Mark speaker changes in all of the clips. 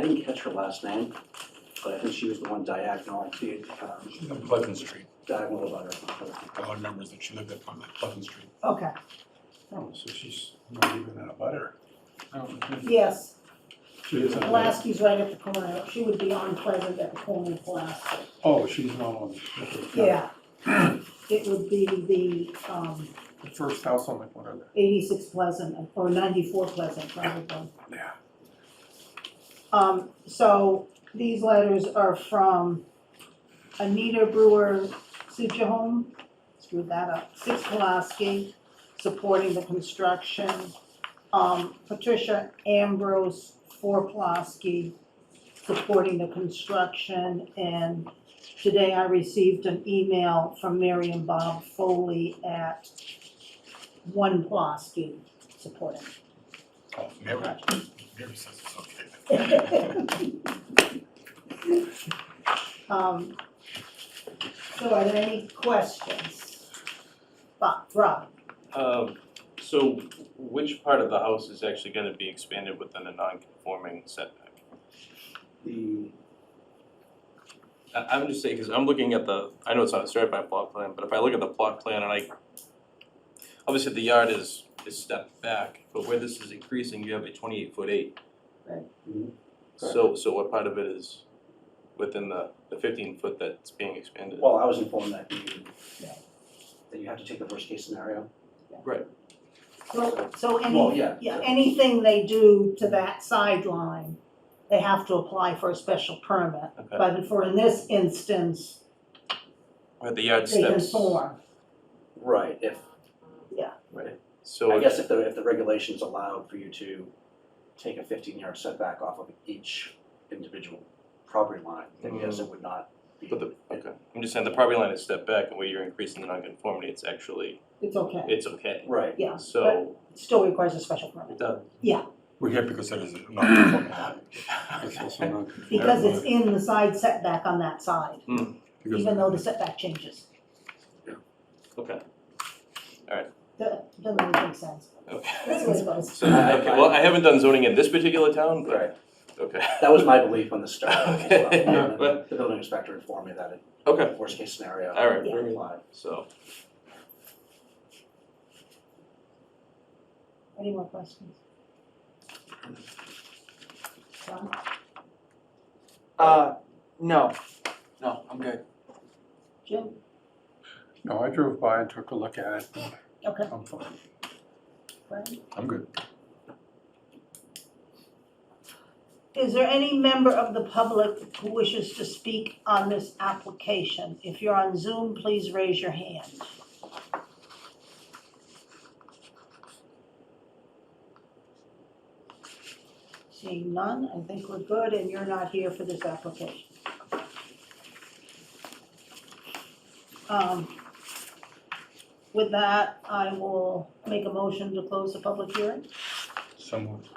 Speaker 1: didn't catch her last name, but I think she was the one diagonal, the, um,
Speaker 2: She's on Pleasant Street.
Speaker 1: diagonal about her.
Speaker 2: I remember that she lived up on that Pleasant Street.
Speaker 3: Okay,
Speaker 4: Oh, so she's not even in a butter. Oh,
Speaker 3: yes,
Speaker 4: She is on that.
Speaker 3: Pulaski's right at the corner, she would be on Pleasant at the corner of Pulaski,
Speaker 4: Oh, she's not on. okay, got it.
Speaker 3: yeah. It would be the, um,
Speaker 4: The first house on the corner
Speaker 3: eighty-six Pleasant, or ninety-four Pleasant, probably.
Speaker 4: there. Yeah.
Speaker 3: Um, so these letters are from Anita Brewer Sujahom, screwed that up, Six Pulaski, supporting the construction. Um, Patricia Ambrose, Four Pulaski, supporting the construction. And today I received an email from Mary and Bob Foley at One Pulaski, supporting.
Speaker 2: Oh, Mary, Mary says it's okay.
Speaker 3: Um, so are there any questions? Bob, Rob,
Speaker 5: Um, so which part of the house is actually gonna be expanded within a non-conforming setback?
Speaker 1: The,
Speaker 5: I, I'm just saying, cause I'm looking at the, I know it's not a certified plot plan, but if I look at the plot plan and I, obviously the yard is, is stepped back, but where this is increasing, you have a twenty-eight foot eight.
Speaker 3: Right.
Speaker 1: Mhm.
Speaker 5: So, so what part of it is within the, the fifteen foot that's being expanded?
Speaker 1: well, I was informed that you,
Speaker 3: Yeah.
Speaker 1: that you have to take the worst case scenario.
Speaker 3: so, so
Speaker 1: Well,
Speaker 3: any,
Speaker 1: yeah.
Speaker 3: yeah, anything they do to that sideline, they have to apply for a special permit.
Speaker 5: Okay,
Speaker 3: But for in this instance,
Speaker 5: where the yard
Speaker 3: they
Speaker 5: steps,
Speaker 3: conform.
Speaker 1: Right, if,
Speaker 5: so
Speaker 1: I
Speaker 5: it's,
Speaker 1: guess if the, if the regulations allowed for you to take a fifteen yard setback off of each individual property line, then yes, it would not be.
Speaker 5: Mm-hmm. but the, okay, I'm just saying the property line is stepped back and where you're increasing the non-conformity, it's actually,
Speaker 3: It's okay,
Speaker 5: it's okay.
Speaker 1: Right,
Speaker 3: yeah,
Speaker 5: So,
Speaker 3: it still requires a special permit.
Speaker 5: done.
Speaker 2: We're here because it is a non-conforming lot. It's also
Speaker 5: Okay.
Speaker 2: non-conforming.
Speaker 3: Because it's in the side setback on that side,
Speaker 2: Because-
Speaker 3: even though the setback changes.
Speaker 5: Okay.
Speaker 3: Doesn't doesn't really make sense. That's the way it goes.
Speaker 5: So, okay, well, I haven't done zoning in this particular town,
Speaker 1: right.
Speaker 5: but, okay,
Speaker 1: That was my belief on the start as well.
Speaker 5: Okay.
Speaker 1: And
Speaker 5: Well-
Speaker 1: The building inspector informed me that it,
Speaker 5: okay,
Speaker 1: worst case scenario.
Speaker 5: all right,
Speaker 3: Yeah.
Speaker 5: very good.
Speaker 1: applied.
Speaker 5: so,
Speaker 3: Any more questions? John?
Speaker 6: Uh, no, no, I'm good.
Speaker 3: Jim?
Speaker 4: No, I drove by and took a look at it.
Speaker 3: Okay.
Speaker 4: I'm fine.
Speaker 3: Brian?
Speaker 2: I'm good.
Speaker 3: Is there any member of the public who wishes to speak on this application? If you're on Zoom, please raise your hand. Seeing none, I think we're good, and you're not here for this application. Um, With that, I will make a motion to close the public hearing.
Speaker 2: So moved.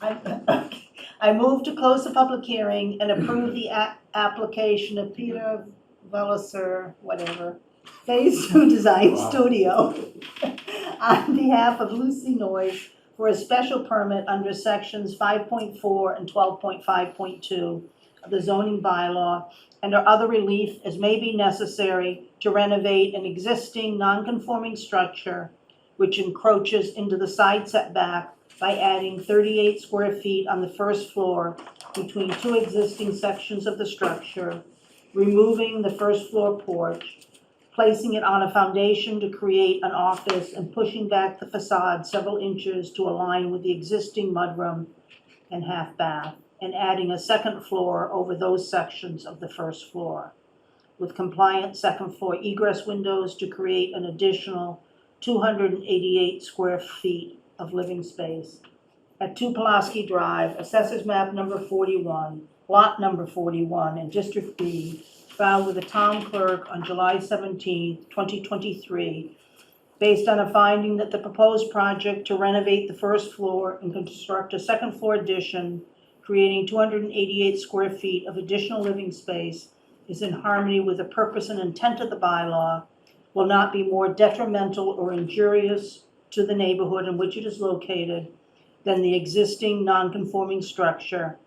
Speaker 3: I I move to close the public hearing and approve the a- application of Peter Velliser, whatever, Phase Two Design
Speaker 4: Wow.
Speaker 3: Studio on behalf of Lucy Noyes for a special permit under sections five point four and twelve point five point two of the zoning bylaw and or other relief as may be necessary to renovate an existing non-conforming structure which encroaches into the side setback by adding thirty-eight square feet on the first floor between two existing sections of the structure, removing the first floor porch, placing it on a foundation to create an office, and pushing back the facade several inches to align with the existing mudroom and half bath, and adding a second floor over those sections of the first floor, with compliant second floor egress windows to create an additional two hundred and eighty-eight square feet of living space at Two Pulaski Drive, assessors map number forty-one, lot number forty-one, in District B, filed with the town clerk on July seventeenth, twenty twenty-three, based on a finding that the proposed project to renovate the first floor and construct a second floor addition, creating two hundred and eighty-eight square feet of additional living space, is in harmony with the purpose and intent of the bylaw, will not be more detrimental or injurious to the neighborhood in which it is located than the existing non-conforming structure